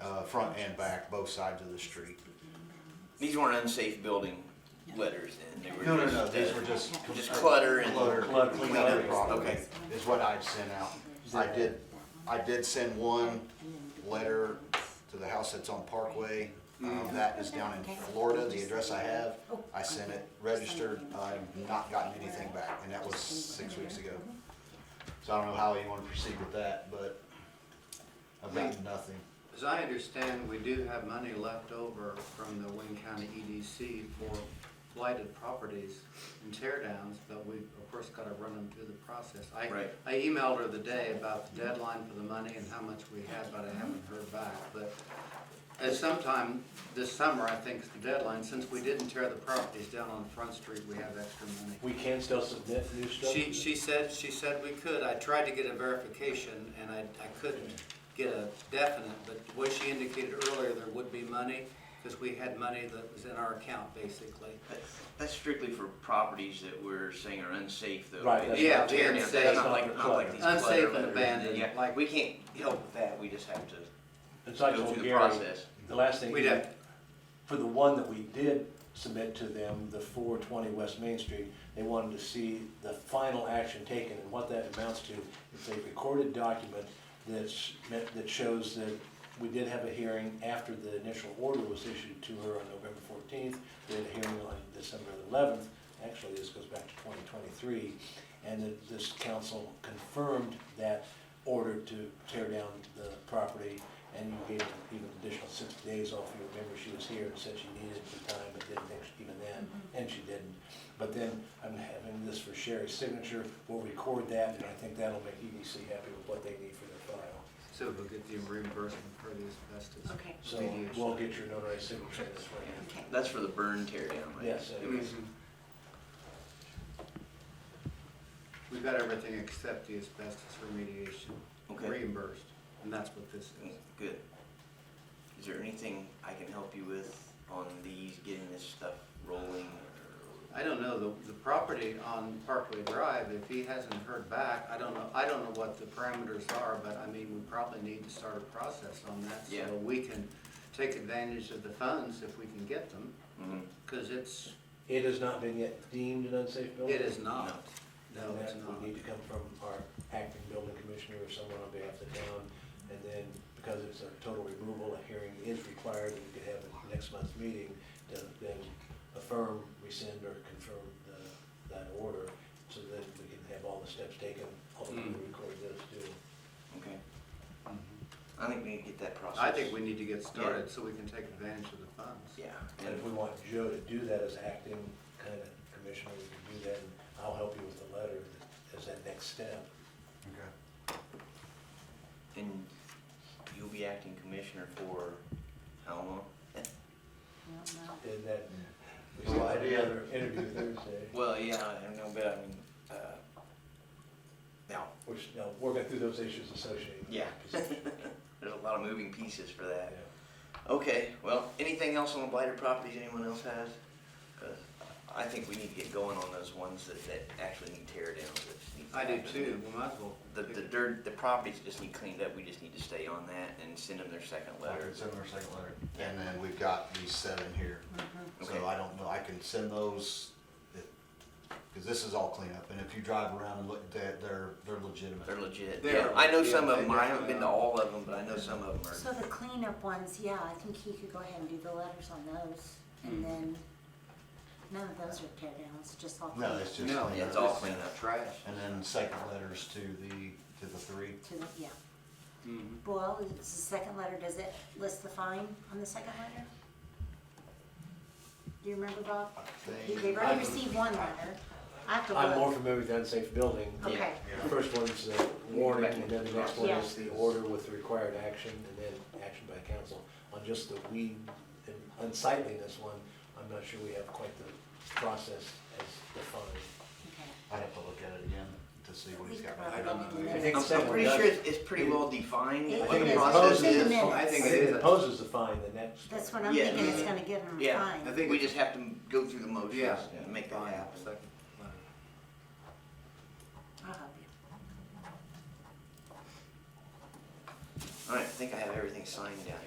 uh, front and back, both sides of the street. These weren't unsafe building letters, then they were No, no, just, no, these uh, were just. just clutter and Clutter, Clutter. clean up Clutter. product Okay. is what I'd sent out. I did, I did send one letter to the house that's on Parkway. Um, that is down in Florida, the address I have. I sent it registered, I've not gotten anything back, and that was six weeks ago. So I don't know how you wanna proceed with that, but I've gotten nothing. As I understand, we do have money left over from the Wayne County EDC for blighted properties and tear downs, but we've, of course, gotta run them through the process. I, Right. I emailed her the day about the deadline for the money and how much we had, but I haven't heard back, but at some time this summer, I think is the deadline, since we didn't tear the properties down on Front Street, we have extra money. We can still submit new stuff? She, she said, she said we could. I tried to get a verification and I, I couldn't get a definite, but what she indicated earlier, there would be money, because we had money that was in our account, basically. That's- That's strictly for properties that we're saying are unsafe, though. Right, that's Yeah, right. Tear down, unsafe. That's not like, not like these clutter Unsafe and letters. abandoned. Yeah, like, we can't help with that, we just have to It's like go on through the Gary, process. the last thing, We'd have, for the one that we did submit to them, the four twenty West Main Street, they wanted to see the final action taken, and what that amounts to is a recorded document that's, that shows that we did have a hearing after the initial order was issued to her on November fourteenth, we had a hearing on December eleventh, actually, this goes back to twenty twenty-three, and that this council confirmed that order to tear down the property, and you gave her even additional six days off. You remember she was here and said she needed the time, but didn't think she- even then, and she didn't. But then I'm having this for Sherry's signature. We'll record that, and I think that'll make EDC happy with what they need for their file. so we'll get the reimbursement for the asbestos. Okay. So remediation. we'll get your notarized signature this way. Okay. That's for the burn tear down, right? Yes, it Okay. is. We've got everything except the asbestos remediation Okay. reimbursed, and that's what this is. Good. Is there anything I can help you with on these, getting this stuff rolling? I don't know, the, the property on Parkway Drive, if he hasn't heard back, I don't know, I don't know what the parameters are, but I mean, we probably need to start a process on that. Yeah. So we can take advantage of the funds if we can get them, Mhm. because it's, It has not been yet deemed an unsafe building. it is not. No, And it's that not. would need to come from our acting building commissioner or someone on behalf of the town. And then, because it's a total removal, a hearing is required, and we could have it next month's meeting to then affirm, rescind, or confirm the, that order, so that we can have all the steps taken, ultimately Mm. record this too. Okay, Mhm. I think we need to get that process. I think we need to get started so we can take advantage of the funds. Yeah, And if we want Joe to do that as acting kind of commissioner, we can do that, and I'll help you with the letter as that next step. Okay. and you'll be acting commissioner for how long? Well, And then, we Well, still had yeah. another interview Thursday. Well, yeah, I don't know, but I mean, uh, now, Which, now, working through those issues associated. with Yeah. the position. there's a lot of moving pieces for Yeah. that. Okay, well, anything else on the blighted properties anyone else has? 'Cause I think we need to get going on those ones that, that actually need tear downs. that need to I do happen. too, we might as well. The, the dirt, the properties just need cleaned up, we just need to stay on that and send them their second letter. Send them our second letter. And then we've got these seven here. Mm-hmm. Okay. So I don't know, I can send those, because this is all cleanup, and if you drive around and look, they're, they're they're legitimate. They're legit. They Yeah, are, I know yeah, some of they them, I haven't definitely been to are. all of them, but I know some of them So are, the cleanup ones, yeah, I think he could go ahead and do the letters on those, and then, none of those are tear downs, just all No, cleanup it's to just No, Yeah, it's cleanup. all this is cleaned up. Trash. And then second letters to the, to the three. the, yeah. Mhm. Well, it's the second letter, does it list the fine on the second letter? Do you remember, Bob? I You- think. They've already received one letter, I have to I'm more look, familiar with the unsafe building. okay, The first one's the warning, and then the next one is Yeah. the order with the required action, and then action by council. On just the weed and unsightliness one, I'm not sure we have quite the process as defined. okay, I'd have to look at it again to see what he's got. I don't know. I think I'm, I'm second one pretty does- sure it's, it's pretty well defined It- what it the is. process It's in the is. minutes. I think If it it is. imposes the fine, then that's. that's what I'm Yeah. thinking, it's gonna get them Yeah. fined. I think We it's- just have to go through the motions Yeah. and Oh, make that Fine, happen. second letter. I'll help you. Alright, I think I have everything signed down here.